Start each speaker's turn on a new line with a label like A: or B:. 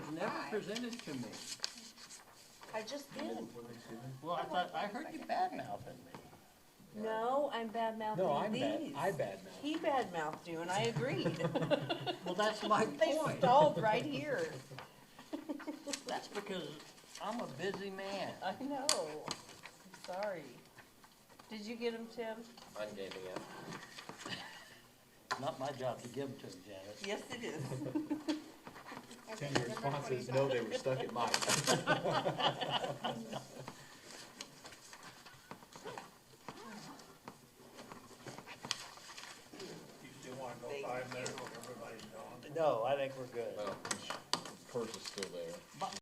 A: presented to me.
B: I just did.
A: Well, I thought, I heard you bad mouthing me.
B: No, I'm bad
C: No, I'm
B: mouthing
C: bad,
B: these.
C: I badmouth.
B: He bad mouthed you and I agreed.
A: Well, that's my
B: They
A: point.
B: stalled right here.
A: That's because I'm a busy man.
B: I know. I'm sorry. Did you get him, Tim?
D: I'm giving up.
A: Not my job to give them to them, Janice.
B: Yes, it is.
C: Ten responses, no, they were stuck at mine.
E: You still wanna go five minutes when everybody's gone?
A: No, I think we're good.
D: Well, Purse is still there.
A: But